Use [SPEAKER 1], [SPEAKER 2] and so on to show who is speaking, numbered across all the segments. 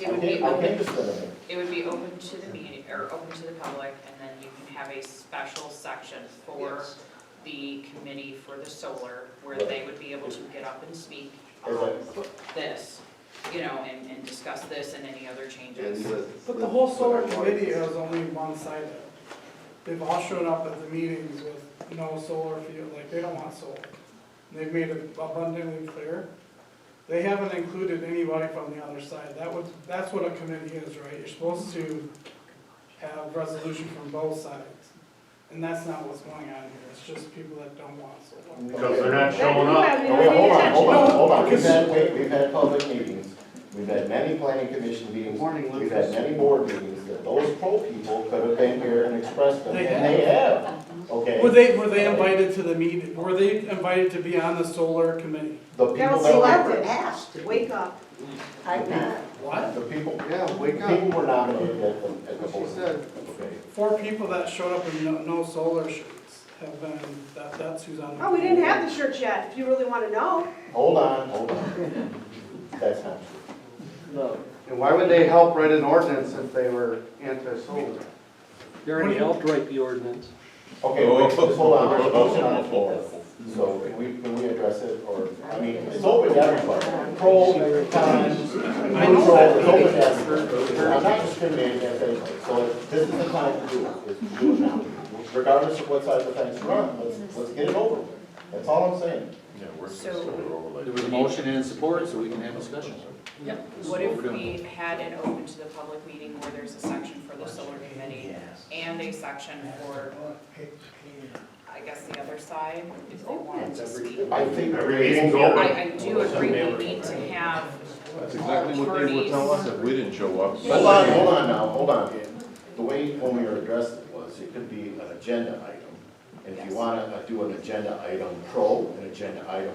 [SPEAKER 1] It would be
[SPEAKER 2] I think
[SPEAKER 1] open,
[SPEAKER 2] it's better.
[SPEAKER 1] it would be open to the meeting, or open to the public, and then you can have a special section for
[SPEAKER 3] Yes.
[SPEAKER 1] the committee for the solar, where they would be able to get up and speak on
[SPEAKER 2] As
[SPEAKER 1] this, you know, and, and discuss this and any other changes.
[SPEAKER 4] But the whole solar committee has only one side of it. They've all showed up at the meetings with no solar field, like they don't want solar. They've made it abundantly clear. They haven't included anybody from the other side. That would, that's what a committee is, right? You're supposed to have resolution from both sides. And that's not what's going on here. It's just people that don't want solar.
[SPEAKER 2] I-
[SPEAKER 5] Because they're not
[SPEAKER 3] They
[SPEAKER 5] showing
[SPEAKER 3] do
[SPEAKER 5] up.
[SPEAKER 3] have the
[SPEAKER 5] Oh, Hold on, hold on, hold on, hold on.
[SPEAKER 2] We've had, wait, we've had public meetings, we've had many planning commission meetings,
[SPEAKER 6] Morning,
[SPEAKER 2] we've had many board meetings, that those pro people could have been here and expressed them,
[SPEAKER 4] They
[SPEAKER 2] and they have, okay?
[SPEAKER 4] Were they, were they invited to the meeting? Were they invited to be on the solar committee?
[SPEAKER 2] The
[SPEAKER 3] That
[SPEAKER 2] people
[SPEAKER 3] was
[SPEAKER 2] that
[SPEAKER 3] elected, asked to wake up. I'm not.
[SPEAKER 4] What?
[SPEAKER 2] were, the people,
[SPEAKER 5] Yeah,
[SPEAKER 2] the
[SPEAKER 5] wake up.
[SPEAKER 2] people were nominated at the, at the board.
[SPEAKER 5] She said,
[SPEAKER 2] Okay.
[SPEAKER 4] Four people that showed up in no, no solar shirts have been, that, that's who's on. the-
[SPEAKER 3] Oh, we didn't have the shirts yet, if you really want to know.
[SPEAKER 2] Hold on, hold on. That's not true.
[SPEAKER 5] and why would they help write an ordinance if they were anti-solar?
[SPEAKER 6] They already helped write the ordinance.
[SPEAKER 2] Okay, wait, just hold on, there's a motion on the floor. So can we, can we address it, or, I mean, it's open to everybody. Pro, cons,
[SPEAKER 4] I know
[SPEAKER 2] neutral,
[SPEAKER 4] that.
[SPEAKER 2] it's open to everybody. I'm not discriminating against anybody, so this is the time to do it, is to do it now. Regardless of what side of the fence you're on, let's, let's get it over with. That's all I'm saying.
[SPEAKER 1] So
[SPEAKER 7] There was a motion and support, so we can have discussion.
[SPEAKER 1] what if we had an open to the public meeting where there's a section for the solar committee and a section for, I guess, the other side, if they wanted to speak?
[SPEAKER 2] I think.
[SPEAKER 5] Every meeting's open.
[SPEAKER 1] I, I do agree we need to have
[SPEAKER 8] That's exactly what they were telling us if we didn't show up.
[SPEAKER 2] Hold on, hold on now, hold on. The way when we were addressed it was, it could be an agenda item. And if you wanna uh, do an agenda item pro, an agenda item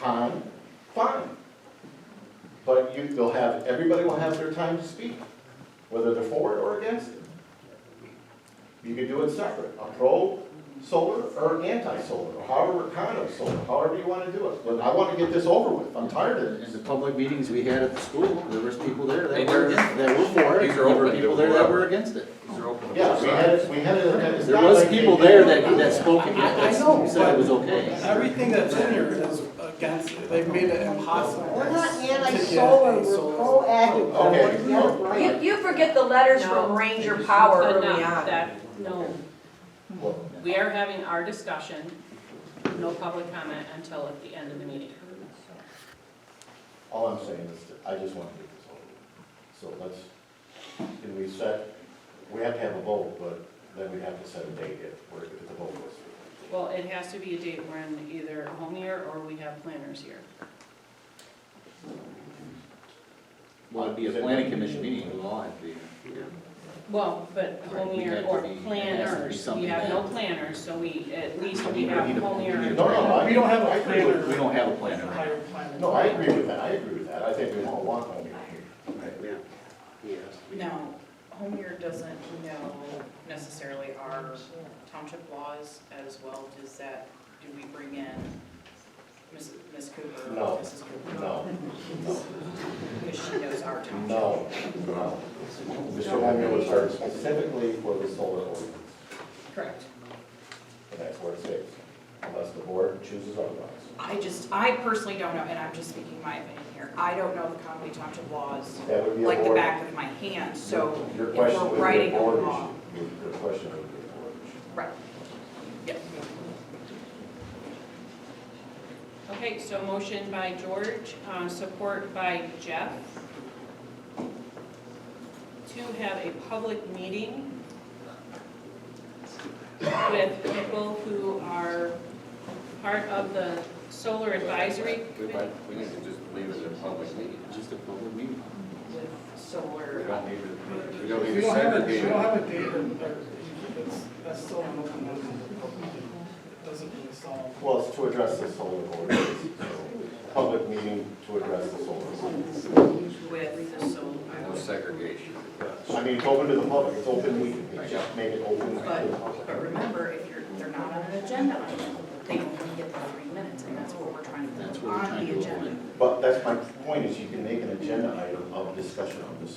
[SPEAKER 2] con, fine. But you, you'll have, everybody will have their time to speak, whether they're for it or against it. You could do it separate, a pro solar or anti-solar, or however, kind of solar, however you wanna do it. But I wanna get this over with, I'm tired of
[SPEAKER 7] In
[SPEAKER 2] this.
[SPEAKER 7] the public meetings we had at the school, there was people there
[SPEAKER 6] They
[SPEAKER 7] that
[SPEAKER 6] were
[SPEAKER 7] were,
[SPEAKER 6] against
[SPEAKER 7] that were for it,
[SPEAKER 8] These are
[SPEAKER 7] there were
[SPEAKER 8] open,
[SPEAKER 7] people
[SPEAKER 8] they
[SPEAKER 7] there
[SPEAKER 8] were
[SPEAKER 7] that
[SPEAKER 8] up.
[SPEAKER 7] were against it.
[SPEAKER 2] Yeah, we had, we had it. it's
[SPEAKER 7] There
[SPEAKER 2] not
[SPEAKER 7] was
[SPEAKER 2] like they
[SPEAKER 7] people there
[SPEAKER 2] didn't-
[SPEAKER 7] that, that spoke
[SPEAKER 4] I- I
[SPEAKER 7] against
[SPEAKER 4] know,
[SPEAKER 7] it, said it was
[SPEAKER 4] but-
[SPEAKER 7] okay.
[SPEAKER 4] Everything that's in here is against it. They've made it impossible.
[SPEAKER 3] We're not
[SPEAKER 4] to get
[SPEAKER 3] anti-solar,
[SPEAKER 4] a
[SPEAKER 3] we're
[SPEAKER 4] solar-
[SPEAKER 3] proactive.
[SPEAKER 2] Oh, okay.
[SPEAKER 3] It's not right.
[SPEAKER 9] You, you forget the letters from Ranger Power
[SPEAKER 1] But
[SPEAKER 9] early
[SPEAKER 1] not
[SPEAKER 9] on.
[SPEAKER 1] that, no, we are having our discussion, no public comment until at the end of the meeting.
[SPEAKER 2] All I'm saying is, that I just want to get this over with. So let's, can we set, we have to have a vote, but then we have to set a date if, we're- if the vote was.
[SPEAKER 1] Well, it has to be a date when either home year or we have planners here.
[SPEAKER 7] Well, it'd be a planning commission meeting, it would all have to be.
[SPEAKER 1] Well, but
[SPEAKER 7] Right,
[SPEAKER 1] home
[SPEAKER 7] we
[SPEAKER 1] year
[SPEAKER 7] have to
[SPEAKER 1] or
[SPEAKER 7] be- it has to be
[SPEAKER 1] planners, we
[SPEAKER 7] something
[SPEAKER 1] have no
[SPEAKER 7] that-
[SPEAKER 1] planners, so we, at least we
[SPEAKER 7] We
[SPEAKER 1] have
[SPEAKER 7] need a-
[SPEAKER 1] home
[SPEAKER 7] we
[SPEAKER 1] year.
[SPEAKER 7] need a-
[SPEAKER 2] No, no, I.
[SPEAKER 4] We don't have
[SPEAKER 2] I
[SPEAKER 4] a
[SPEAKER 2] agree with-
[SPEAKER 4] planner.
[SPEAKER 7] We don't have a planner.
[SPEAKER 4] Hire planner.
[SPEAKER 2] No, I agree with that, I agree with that. I think we all want home meeting here.
[SPEAKER 1] No, home year doesn't know necessarily our township laws as well, does that, do we bring in Ms. Ms. Cooper?
[SPEAKER 2] No.
[SPEAKER 1] Mrs. Cooper?
[SPEAKER 2] No,
[SPEAKER 1] Because she knows our township.
[SPEAKER 2] no, no. Mr. Homer was hired specifically for the solar ordinance,
[SPEAKER 1] Correct.
[SPEAKER 2] and that's where it stays, unless the board chooses otherwise.
[SPEAKER 1] I just, I personally don't know, and I'm just speaking my opinion here, I don't know the Conway Township laws
[SPEAKER 2] That would be a
[SPEAKER 1] like the
[SPEAKER 2] board-
[SPEAKER 1] back of my hand, so
[SPEAKER 2] Your
[SPEAKER 1] if
[SPEAKER 2] question
[SPEAKER 1] we're
[SPEAKER 2] would be a
[SPEAKER 1] writing a
[SPEAKER 2] board
[SPEAKER 1] law.
[SPEAKER 2] issue. Your- Your question would be a board issue.
[SPEAKER 1] Right. Yep. Okay, so motion by George, uh, support by Jeff to have a public meeting with people who are part of the solar advisory
[SPEAKER 7] We
[SPEAKER 1] committee.
[SPEAKER 7] might- we need to just leave it in public meeting. Just a public meeting.
[SPEAKER 1] With
[SPEAKER 5] We
[SPEAKER 1] solar.
[SPEAKER 5] don't need to, we don't
[SPEAKER 4] We
[SPEAKER 5] need to
[SPEAKER 4] don't have a, we
[SPEAKER 5] segregate.
[SPEAKER 4] don't have a date or, or, it's, that's still an open ended. It doesn't really solve.
[SPEAKER 2] Well, it's to address the solar ordinance, so, public meeting to address the solar ordinance.
[SPEAKER 1] With the
[SPEAKER 7] No
[SPEAKER 1] solar.
[SPEAKER 7] segregation.
[SPEAKER 2] I mean, it's open to the public, it's open meeting, it's just make it open to the
[SPEAKER 1] But,
[SPEAKER 2] public.
[SPEAKER 1] but remember, if you're, they're not on an agenda item, they only get the three minutes, and that's what we're trying to
[SPEAKER 7] That's
[SPEAKER 1] put
[SPEAKER 7] what we're
[SPEAKER 1] on
[SPEAKER 7] trying
[SPEAKER 1] the
[SPEAKER 7] to
[SPEAKER 1] agenda.
[SPEAKER 7] avoid.
[SPEAKER 2] But that's my point, is you can make an agenda item of discussion on this